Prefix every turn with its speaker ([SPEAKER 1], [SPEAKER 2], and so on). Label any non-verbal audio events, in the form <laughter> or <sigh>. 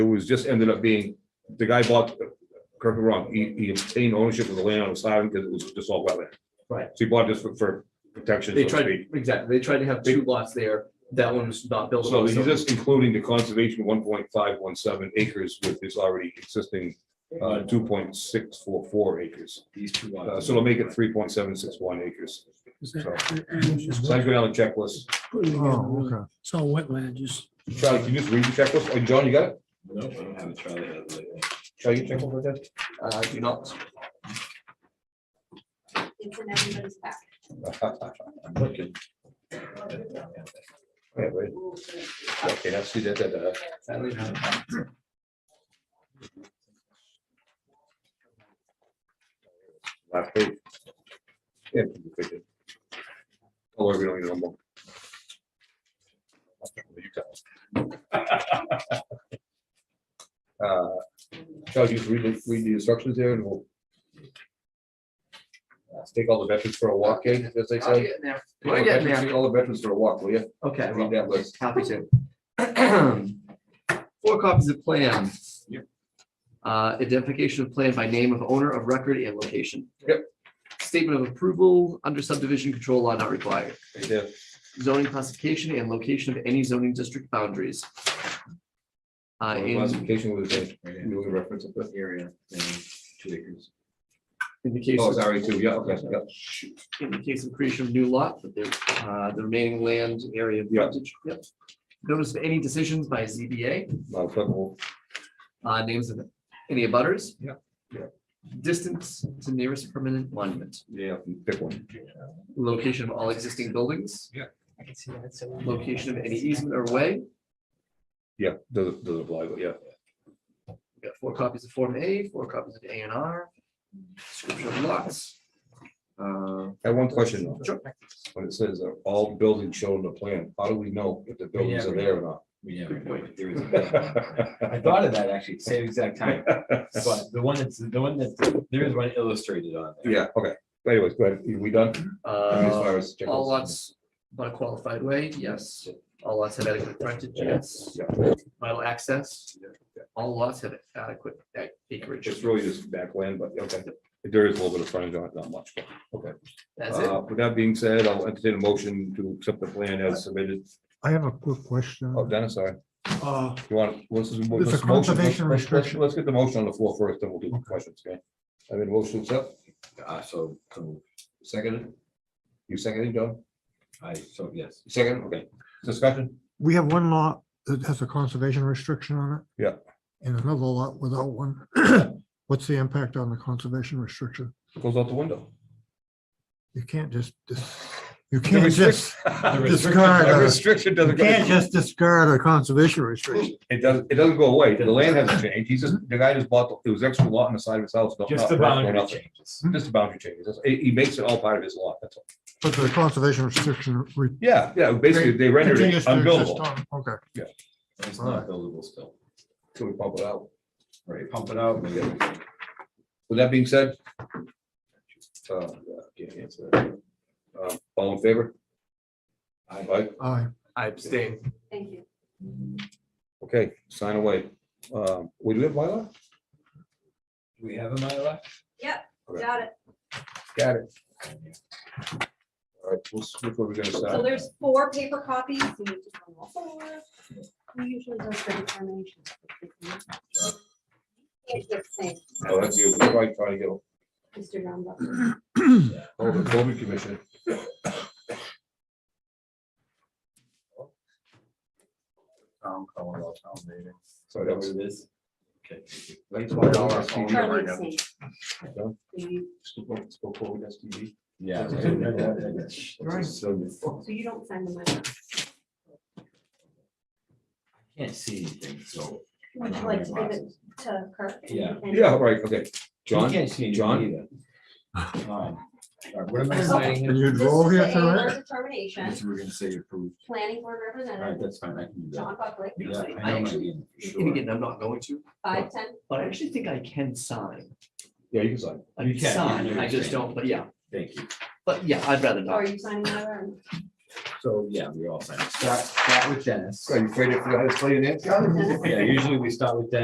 [SPEAKER 1] It was just ended up being, the guy bought, correct me wrong, he, he obtained ownership of the land on Siren because it was just all wetland.
[SPEAKER 2] Right.
[SPEAKER 1] So he bought this for, for protection.
[SPEAKER 2] They
[SPEAKER 1] so to
[SPEAKER 2] tried,
[SPEAKER 1] speak.
[SPEAKER 2] exactly, they tried to have two lots there, that one was not built.
[SPEAKER 1] So he's just including the conservation one point five one seven acres with his already existing, uh, two point six four four acres.
[SPEAKER 3] These two
[SPEAKER 1] Uh,
[SPEAKER 3] lots.
[SPEAKER 1] so it'll make it three point seven six one acres.
[SPEAKER 4] Is
[SPEAKER 1] So,
[SPEAKER 4] that- and just
[SPEAKER 1] so I go down the checklist.
[SPEAKER 4] put it together,
[SPEAKER 5] Oh,
[SPEAKER 4] really.
[SPEAKER 5] okay.
[SPEAKER 4] It's all wetland, just.
[SPEAKER 1] Charlie, can you just read the checklist? Oh, John, you got it?
[SPEAKER 3] No, I don't have it. Charlie has it.
[SPEAKER 1] Charlie, you check over that?
[SPEAKER 2] Uh, do not,
[SPEAKER 6] It's in everybody's pack.
[SPEAKER 3] I'm looking.
[SPEAKER 1] Yeah, right. Okay, that's, that, that, uh, that.
[SPEAKER 2] sadly, not.
[SPEAKER 1] Last page. Yeah. Although we don't need no more. You got it. <laughs> Uh, Charles, you just read, the- read the instructions there and we'll uh, take all the veterans for a walk, eh, as they
[SPEAKER 2] I'll
[SPEAKER 1] say.
[SPEAKER 2] get
[SPEAKER 1] Take
[SPEAKER 2] there.
[SPEAKER 1] all the
[SPEAKER 2] We're getting
[SPEAKER 1] veterans-
[SPEAKER 2] there.
[SPEAKER 1] take All the veterans for a walk, will you?
[SPEAKER 2] Okay,
[SPEAKER 1] Read
[SPEAKER 2] well,
[SPEAKER 1] that list.
[SPEAKER 2] happy to. <clears throat> Four copies of plan.
[SPEAKER 3] Yep.
[SPEAKER 2] Uh, identification of plan by name of owner of record and location.
[SPEAKER 1] Yep.
[SPEAKER 2] Statement of approval under subdivision control law not required.
[SPEAKER 1] Right there.
[SPEAKER 2] Zoning classification and location of any zoning district boundaries. Uh, in,
[SPEAKER 1] Classification was a,
[SPEAKER 3] Right
[SPEAKER 1] you were reference of
[SPEAKER 3] in. Area, um, two acres.
[SPEAKER 2] in the case.
[SPEAKER 1] Oh,
[SPEAKER 2] of-
[SPEAKER 1] sorry, too, yeah, okay, yeah.
[SPEAKER 2] in the case of creation of new lot, but there, uh, the remaining land area of
[SPEAKER 1] Yeah.
[SPEAKER 2] frontage, yep. Notice of any decisions by ZBA,
[SPEAKER 1] Now, applicable.
[SPEAKER 2] uh, names of any abutters.
[SPEAKER 1] Yeah. Yeah.
[SPEAKER 2] Distance to nearest permanent monument,
[SPEAKER 1] Yeah, pick one.
[SPEAKER 2] location of all existing buildings.
[SPEAKER 1] Yeah.
[SPEAKER 2] I can see that, so. Location of any easement or way,
[SPEAKER 1] Yeah, doesn't, doesn't apply, but yeah.
[SPEAKER 2] we got four copies of Form A, four copies of A and R, description of lots. Uh,
[SPEAKER 1] I have one question though.
[SPEAKER 2] Sure.
[SPEAKER 1] When it says that all buildings shown in the plan, how do we know if the buildings are there or not?
[SPEAKER 3] We never
[SPEAKER 2] Good
[SPEAKER 3] know
[SPEAKER 2] point.
[SPEAKER 3] if there is.
[SPEAKER 1] <laughs>
[SPEAKER 3] a- I thought of that actually, same exact <laughs> time, but the one that's, the one that, there is one illustrated on. there.
[SPEAKER 1] Yeah, okay. But Anyways, go ahead. Are We done? As
[SPEAKER 2] uh,
[SPEAKER 1] far as checklists?
[SPEAKER 2] All lots, but a qualified way, yes. All lots have adequate frontage, yes.
[SPEAKER 1] Yeah.
[SPEAKER 2] Vital access, all lots have adequate ac- acreage.
[SPEAKER 1] It's really just backland, but okay. There is a little bit of frontage on it, not much. but Okay.
[SPEAKER 2] That's it.
[SPEAKER 1] Uh, With that being said, I'll entertain a motion to accept the plan as submitted.
[SPEAKER 5] I have a quick question.
[SPEAKER 1] Oh, Dennis, sorry.
[SPEAKER 5] Uh,
[SPEAKER 1] You want, what's this?
[SPEAKER 5] It's a
[SPEAKER 1] this motion?
[SPEAKER 5] conservation
[SPEAKER 1] Let's- let's-
[SPEAKER 5] restriction.
[SPEAKER 1] Let's get the motion on the floor first, then we'll do the questions, okay? I mean, motion accept,
[SPEAKER 3] Uh, so, so
[SPEAKER 1] seconded. You seconded, John?
[SPEAKER 3] I, so yes,
[SPEAKER 1] Second, okay. Discussion?
[SPEAKER 5] We have one lot that has a conservation restriction on it.
[SPEAKER 1] Yeah.
[SPEAKER 5] And another lot without one. <clears throat> What's the impact on the conservation restriction?
[SPEAKER 1] Goes out the window.
[SPEAKER 5] You can't just, dis- you
[SPEAKER 1] The
[SPEAKER 5] can't
[SPEAKER 1] restrict-
[SPEAKER 5] just,
[SPEAKER 1] <laughs> the restrict-
[SPEAKER 5] discard,
[SPEAKER 1] the
[SPEAKER 5] uh,
[SPEAKER 1] Restriction
[SPEAKER 5] you
[SPEAKER 1] doesn't. go-
[SPEAKER 5] can't just discard a conservation restriction.
[SPEAKER 1] It doesn't, it doesn't go away. The land
[SPEAKER 5] <laughs>
[SPEAKER 1] hasn't changed. He's just, the guy just bought, the- it was extra lot on the side of his house. no-
[SPEAKER 3] just
[SPEAKER 1] not-
[SPEAKER 3] the
[SPEAKER 1] not-
[SPEAKER 3] boundary
[SPEAKER 1] nothing.
[SPEAKER 3] changes.
[SPEAKER 1] Just the boundary changes. That's- He, he makes it all part of his lot, that's all.
[SPEAKER 5] But the conservation restriction. re-
[SPEAKER 1] Yeah, yeah, basically, they rendered it
[SPEAKER 5] continues to exist
[SPEAKER 1] unbuildable.
[SPEAKER 5] on- Okay.
[SPEAKER 3] It's not buildable still.
[SPEAKER 1] So we pump it out.
[SPEAKER 3] Right, pump it out. maybe we can
[SPEAKER 1] With that being said. uh, can't answer that. Uh, All in favor? Aye.
[SPEAKER 5] I,
[SPEAKER 2] I abstain.
[SPEAKER 6] Thank you.
[SPEAKER 1] Okay, sign away. Um, We do have bylaw?
[SPEAKER 3] Do we have a Mylar?
[SPEAKER 6] Got it.
[SPEAKER 1] Got it. All right, we'll switch what we're gonna
[SPEAKER 6] So
[SPEAKER 1] sign.
[SPEAKER 6] there's four paper copies. so you just want all four. We usually does the determination. It's the same,
[SPEAKER 1] I'll have you, we're probably trying to get
[SPEAKER 6] Mr. Dunlop.
[SPEAKER 1] Oh, the building commission. So that
[SPEAKER 3] Whatever
[SPEAKER 1] was.
[SPEAKER 3] it is. Okay.
[SPEAKER 6] Charlie the same.
[SPEAKER 1] Done?
[SPEAKER 6] You-
[SPEAKER 3] Yeah.
[SPEAKER 5] Right.
[SPEAKER 3] So
[SPEAKER 6] So you don't sign the money.
[SPEAKER 3] Can't see anything, so.
[SPEAKER 6] Would you like to give it to Kirk?
[SPEAKER 3] Yeah.
[SPEAKER 6] And-
[SPEAKER 1] Yeah, right, okay.
[SPEAKER 3] You
[SPEAKER 1] John,
[SPEAKER 3] Can't see
[SPEAKER 1] John?
[SPEAKER 3] anything either. Um, all right, What am I signing?
[SPEAKER 5] and you
[SPEAKER 6] This
[SPEAKER 5] drove
[SPEAKER 6] is
[SPEAKER 5] here
[SPEAKER 6] the
[SPEAKER 5] tonight?
[SPEAKER 6] ALR Determination,
[SPEAKER 3] Yes, We're gonna say approved.
[SPEAKER 6] planning board
[SPEAKER 3] All right,
[SPEAKER 6] representative,
[SPEAKER 3] that's fine. I can do that.
[SPEAKER 6] John Buckley,
[SPEAKER 3] Yeah, I know
[SPEAKER 2] I
[SPEAKER 3] my
[SPEAKER 2] actually-
[SPEAKER 3] name
[SPEAKER 2] <laughs> And
[SPEAKER 3] for sure.
[SPEAKER 2] again, I'm not going to,
[SPEAKER 6] five ten,
[SPEAKER 2] but I actually think I can sign.
[SPEAKER 1] yeah, you can sign.
[SPEAKER 2] I
[SPEAKER 3] You can, you
[SPEAKER 2] sign,
[SPEAKER 3] can
[SPEAKER 2] I just
[SPEAKER 3] abstain.
[SPEAKER 2] don't, but yeah,
[SPEAKER 3] Thank you.
[SPEAKER 2] but yeah, I'd rather
[SPEAKER 6] are
[SPEAKER 2] not.
[SPEAKER 6] you signing another?
[SPEAKER 3] So, yeah, we're all signed. Start, start with Dennis.
[SPEAKER 1] Are you afraid I forgot how to spell your name, Charlie?
[SPEAKER 3] Yeah, usually we start with Dennis